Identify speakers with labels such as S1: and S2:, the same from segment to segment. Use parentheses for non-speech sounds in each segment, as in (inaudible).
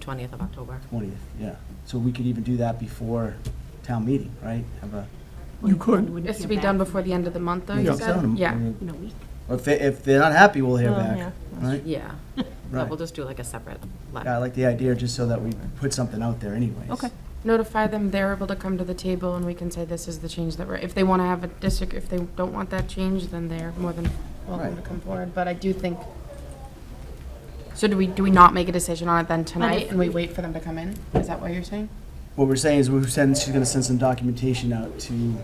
S1: 20th of October.
S2: 20th, yeah. So we could even do that before town meeting, right? Have a,
S3: You could.
S1: It's to be done before the end of the month, though, you
S3: Yeah.
S1: said? Yeah,
S3: In a week.
S2: If, they- if they're not happy, we'll hear
S4: Well,
S2: back,
S4: Oh, yeah,
S2: right?
S1: yeah. But
S2: Right.
S1: we'll just do like a separate
S2: Yeah, I
S1: letter.
S2: like the idea, just so that we put something out there anyways.
S4: Okay.
S1: Notify them they're able to come to the table, and we can say this is the change that we're, if they want to have a district, if they don't want that change, then they're more than welcome to
S2: Right.
S1: come forward, but I do think, so do we, do we not make a decision on it then tonight, and we wait for them to come in? Is that what you're saying?
S2: What we're saying is we're sending, she's gonna send some documentation out to, you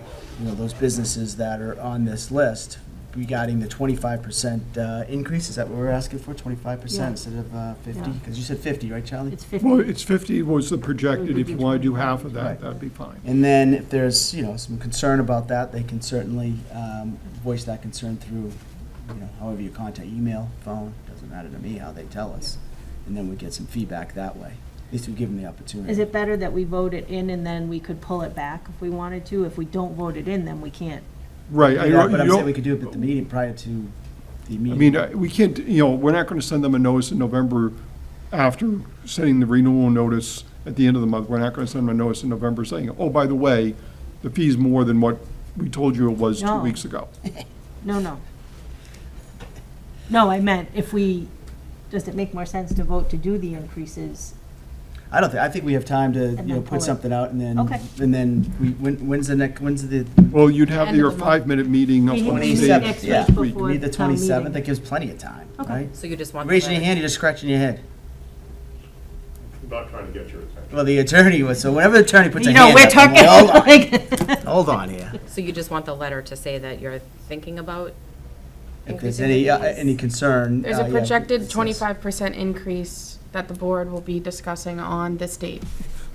S2: know, those businesses that are on this list regarding the 25% uh, increase. Is that what we're asking for, 25%
S4: Yeah.
S2: instead of uh, 50?
S4: Yeah.
S2: Because you said 50, right, Charlie?
S4: It's 50.
S3: Well, it's 50 was the projected. If you want to do half of
S2: Right.
S3: that, that'd be fine.
S2: And then if there's, you know, some concern about that, they can certainly um, voice that concern through, you know, however you contact, email, phone, doesn't matter to me how they tell us. And then we get some feedback that way. At least we give them the opportunity.
S4: Is it better that we vote it in and then we could pull it back if we wanted to? If we don't vote it in, then we can't.
S3: Right. I-
S2: Yeah, But I'm
S3: you
S2: saying
S3: don't-
S2: we could do it at the meeting prior to the
S3: I
S2: meeting.
S3: mean, uh, I- we can't, you know, we're not going to send them a notice in November after sending the renewal notice at the end of the month. We're not going to send them a notice in November saying, oh, by the way, the fee's more than what we told you it was two
S4: No.
S3: weeks ago.
S4: No, no. No, I meant if we, does it make more sense to vote to do the increases?
S2: I don't think, I think we have time to, you know,
S4: then pull
S2: put
S4: it.
S2: something out and then,
S4: Okay.
S2: and then, we when- when's the next, when's the,
S3: Well, you'd have
S1: End of
S3: your
S1: the month.
S3: five-minute meeting up
S4: Meeting
S3: on the
S4: next
S3: date
S2: 27th,
S3: next
S4: yeah.
S3: week.
S2: we need the
S4: Before town meeting.
S2: 27th, that gives plenty of time,
S4: Okay.
S2: right?
S1: So you just want. the
S2: Raising your
S1: letter-
S2: hand, you're just scratching your head.
S5: Not trying to get your attention.
S2: Well, the attorney was, so whenever the attorney puts a
S4: You
S2: hand up.
S4: know, we're
S2: I'm
S4: talking
S2: like, "Hold on."
S4: (laughs) like,
S2: (laughs) Hold on
S1: (laughs)
S2: here.
S1: So you just want the letter to say that you're thinking about
S2: If there's
S1: Increasing
S2: any,
S1: the
S2: uh,
S1: fees.
S2: any concern.
S1: There's
S2: uh,
S1: a
S2: yeah,
S1: projected
S2: it's-
S1: twenty-five percent increase that the board will be discussing on this date.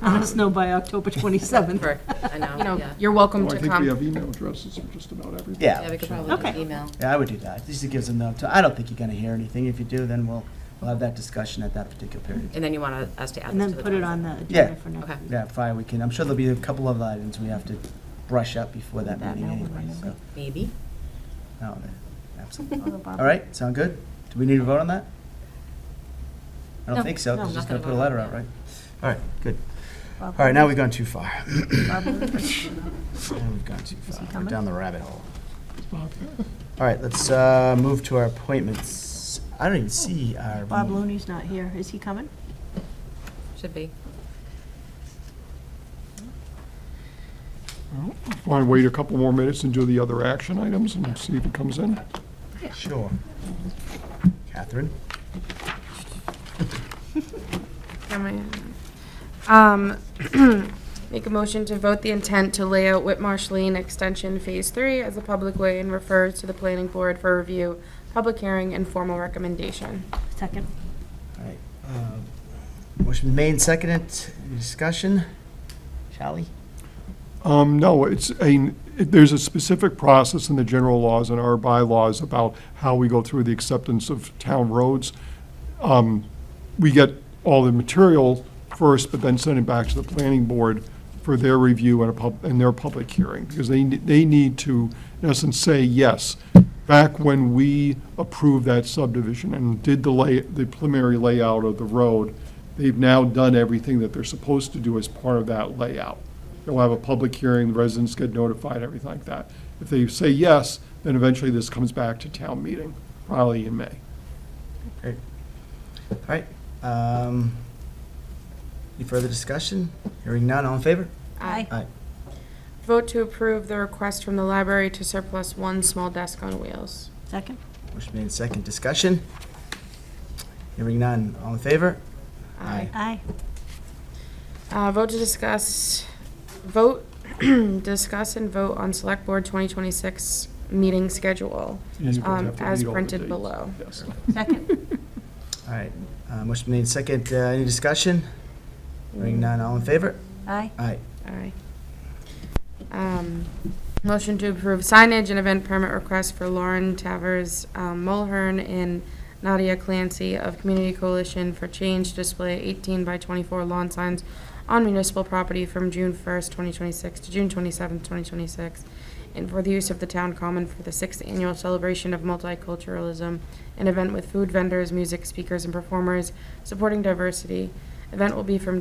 S4: let us know by October
S2: (laughs)
S4: 27th.
S1: For, I
S4: You know,
S1: know, yeah. You're welcome
S3: Oh, I
S1: to
S3: think we
S1: come.
S3: have email addresses for just about everything.
S1: Yeah,
S2: Yeah,
S1: we could
S2: sure.
S1: probably just
S4: Okay.
S1: email.
S2: yeah, I would do that. This just gives them the, I don't think you're gonna hear anything. If you do, then we'll, we'll have that discussion at that particular period.
S1: And then you want us to add
S4: And
S1: this
S4: then
S1: to the.
S4: put it on
S1: document.
S4: the
S2: Yeah.
S4: agenda for next
S1: Okay.
S4: week.
S2: Yeah, Friday we can. I'm sure there'll be a couple of items we have to brush up before that
S4: That
S2: meeting
S4: now,
S2: anyway,
S4: right?
S2: so.
S1: Maybe.
S2: no, that-
S1: (laughs)
S2: Absolutely. All right, sound good? Do we need to vote on that? I
S4: No,
S2: don't think so,
S4: no,
S2: because just gonna
S1: nothing to
S2: put a
S1: vote on,
S2: letter out,
S1: yeah.
S2: right? All right, good. All right, now we've gone too far. Now We've gone too
S4: he
S2: far. We're
S4: coming?
S2: down the rabbit hole. All right, let's uh, move to our appointments. I don't even see our.
S4: Bob Looney's not here. Is he coming?
S1: Should be.
S3: Want to wait a couple more minutes and do the other action items and see if it comes in?
S2: Sure. Catherine?
S1: Am I- Um, (clears throat) make a motion to vote the intent to lay out Whitmarsh Lane Extension Phase Three as a public way and refer to the planning board for review, public hearing, and formal recommendation.
S4: Second.
S2: All right. uh, Motion made, and seconded. Any Discussion? Charlie?
S3: Um, no, it's a, there's a specific process in the general laws and our bylaws about how we go through the acceptance of town roads. Um, we get all the material first, but then send it back to the planning board for their review and a pub, and their public hearing, because they, ne- they need to, in essence, say, yes, back when we approved that subdivision and did the lay, the preliminary layout of the road, they've now done everything that they're supposed to do as part of that layout. They'll have a public hearing, the residents get notified, everything like that. If they say yes, then eventually this comes back to town meeting, probably in May.
S2: Great. All right. um, Any further discussion? Hearing none, all in favor?
S4: Aye.
S2: Aye.
S1: Vote to approve the request from the library to surplus one small desk on wheels.
S4: Second.
S2: Motion made, and seconded. Discussion? Hearing none, all in favor? Aye.
S4: Aye.
S1: Uh, vote to discuss, vote, (clears throat) discuss and vote on select board 2026 meeting schedule.
S3: You would
S1: Um,
S3: have to
S1: as
S3: read all the
S1: printed
S3: dates.
S1: below.
S3: Yes.
S4: Second.
S2: All right, uh, motion made second, uh, any discussion? Hearing none, all in favor?
S4: Aye.
S2: Aye.
S1: Aye. Um, motion to approve signage and event permit request for Lauren Tavers um, Mulhern and Nadia Clancy of Community Coalition for Change display 18 by 24 lawn signs on municipal property from June 1st, 2026 to June 27th, 2026, and for the use of the town common for the sixth annual celebration of multiculturalism, an event with food vendors, music speakers, and performers supporting diversity Event will be from